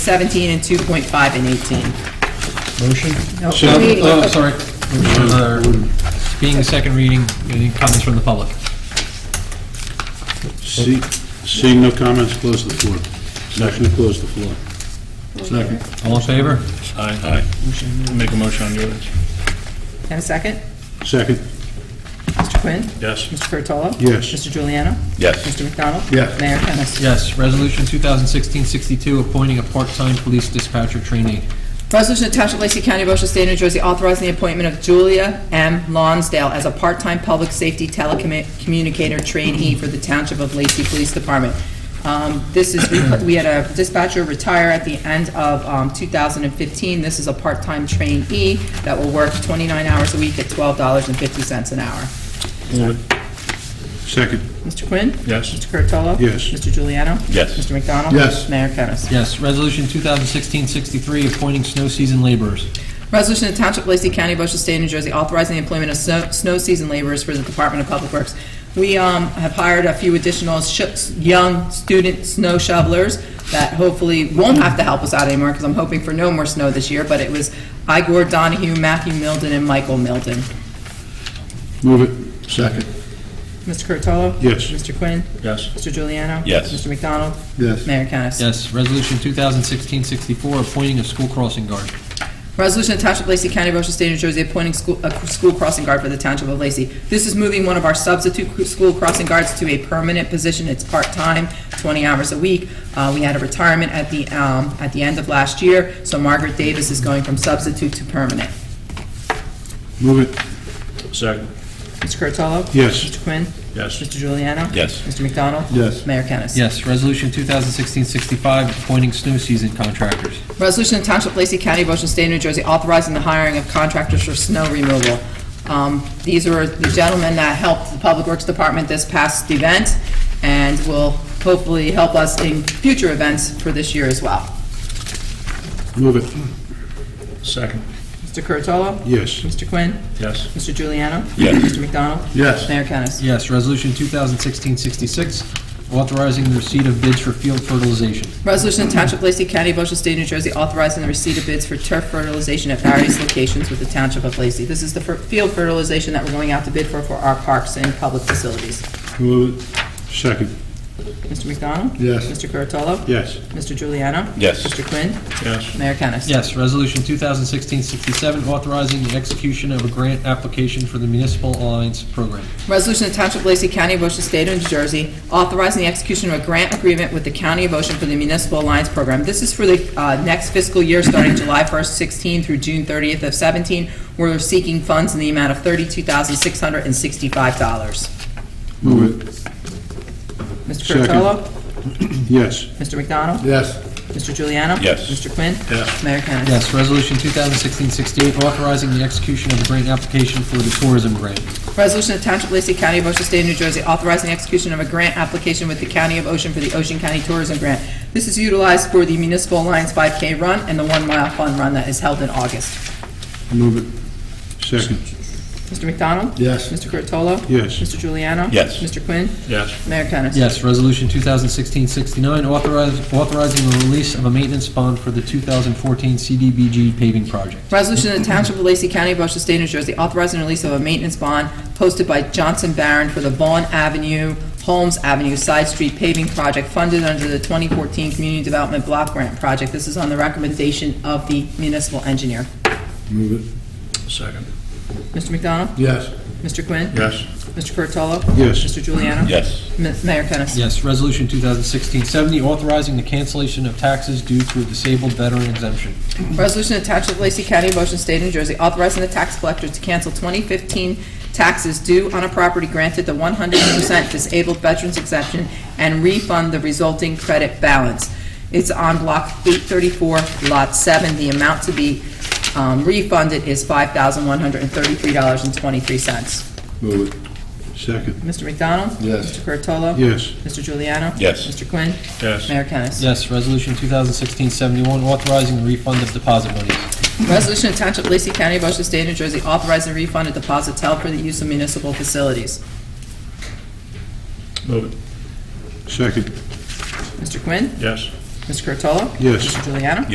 17 and 2.5 and 18. Motion? No, Should- reading. Oh, sorry. Another- Being a second reading, any comments from the public? See- Seeing no comments, close the floor. Motion to close the floor. Second. All in favor? Aye. Make a motion on yours. And a second? Second, Mr. Quinn? Yes. Mr. Curatolo? Yes. Mr. Juliano? Yes. Mr. McDonald? Yes. Mayor Kennas. Yes. Resolution 2016-62, appointing a part-time police dispatcher trainee. Resolution to Township of Lacey County, Ocean State, New Jersey, authorizing the appointment of Julia M. Lonsdale as a part-time public safety telecommunicator trainee for the Township of Lacey Police Department. Um, This is, we had a dispatcher retire at the end of um, 2015. This is a part-time trainee that will work 29 hours a week at $12.50 an hour. second, Mr. Quinn? Yes. Mr. Curatolo? Yes. Mr. Juliano? Yes. Mr. McDonald? Yes. Mayor Kennas. Yes. Resolution 2016-63, appointing snow season laborers. Resolution to Township of Lacey County, Ocean State, New Jersey, authorizing the employment of snow snow season laborers for the Department of Public Works. We um, have hired a few additional sh- young student snow shovelers that hopefully won't have to help us out anymore, because I'm hoping for no more snow this year, but it was Igor Donahue, Matthew Milden, and Michael Milden. move it. Second. Mr. Curatolo? Yes. Mr. Quinn? Yes. Mr. Juliano? Yes. Mr. McDonald? Yes. Mayor Kennas. Yes. Resolution 2016-64, appointing a school crossing guard. Resolution to Township of Lacey County, Ocean State, New Jersey, appointing school, a school crossing guard for the Township of Lacey. This is moving one of our substitute cr- school crossing guards to a permanent position. It's part-time, 20 hours a week. Uh, We had a retirement at the, um, at the end of last year, so Margaret Davis is going from substitute to permanent. Move it. Second. Mr. Curatolo? Yes. Mr. Quinn? Yes. Mr. Juliano? Yes. Mr. McDonald? Yes. Mayor Kennas. Yes. Resolution 2016-65, appointing snow season contractors. Resolution of Township of Lacey County, Ocean State, New Jersey, authorizing the hiring of contractors for snow removal. Um, These are the gentlemen that helped the Public Works Department this past event, and will hopefully help us in future events for this year as well. Move it. Second. Mr. Curatolo? Yes. Mr. Quinn? Yes. Mr. Juliano? Yes. Mr. McDonald? Yes. Mayor Kennas. Yes. Resolution 2016-66, authorizing the receipt of bids for field fertilization. Resolution of Township of Lacey County, Ocean State, New Jersey, authorizing the receipt of bids for turf fertilization at various locations with the Township of Lacey. This is the fer- field fertilization that we're going out to bid for, for our parks and public facilities. Move it. Second. Mr. McDonald? Yes. Mr. Curatolo? Yes. Mr. Juliano? Yes. Mr. Quinn? Yes. Mayor Kennas. Yes, Resolution 2016-67, authorizing the execution of a grant application for the Municipal Alliance Program. Resolution of Township of Lacey County, Ocean State, of New Jersey, authorizing the execution of a grant agreement with the County of Ocean for the Municipal Alliance Program. This is for the uh, next fiscal year, starting July 1st, 16 through June 30th of 17. We're seeking funds in the amount of $32,665. Move it. Mr. Second. Curatolo? Yes. Mr. McDonald? Yes. Mr. Juliano? Yes. Mr. Quinn? Yes. Mayor Kennas. Yes, Resolution 2016-68, authorizing the execution of a grant application for the tourism grant. Resolution of Township of Lacey County, Ocean State, New Jersey, authorizing the execution of a grant application with the County of Ocean for the Ocean County Tourism Grant. This is utilized for the Municipal Alliance 5K Run and the One Mile Fun Run that is held in August. Move it. Second. Mr. McDonald? Yes. Mr. Curatolo? Yes. Mr. Juliano? Yes. Mr. Quinn? Yes. Mayor Kennas. Yes, Resolution 2016-69, authorize- authorizing the release of a maintenance bond for the 2014 CDBG paving project. Resolution of the Township of Lacey County, Ocean State, New Jersey, authorizing the release of a maintenance bond posted by Johnson Barron for the Vaughn Avenue, Holmes Avenue Side Street paving project funded under the 2014 Community Development Block Grant Project. This is on the recommendation of the municipal engineer. Move Second. Mr. McDonald? it. Yes. Mr. Quinn? Yes. Mr. Curatolo? Yes. Mr. Juliano? Yes. Ma- Mayor Kennas. Yes, Resolution 2016-70, authorizing the cancellation of taxes due to a disabled veteran exemption. Resolution of Township of Lacey County, Motion State, New Jersey, authorizing the tax collector to cancel 2015 taxes due on a property granted the 100% disabled veterans exemption and refund the resulting credit balance. It's on Block 834, Lot 7. The amount to be um, refunded is $5,133.23. Move it. Second. Mr. McDonald? Yes. Mr. Curatolo? Yes. Mr. Juliano? Yes. Mr. Quinn? Yes. Mayor Kennas. Yes, Resolution 2016-71, authorizing the refund of deposit monies. Resolution of Township of Lacey County, Ocean State, New Jersey, authorizing refund of deposits held for the use of municipal facilities. Move it. Second. Mr. Quinn? Yes. Ms. Curtolo. Yes. Mr. Juliano?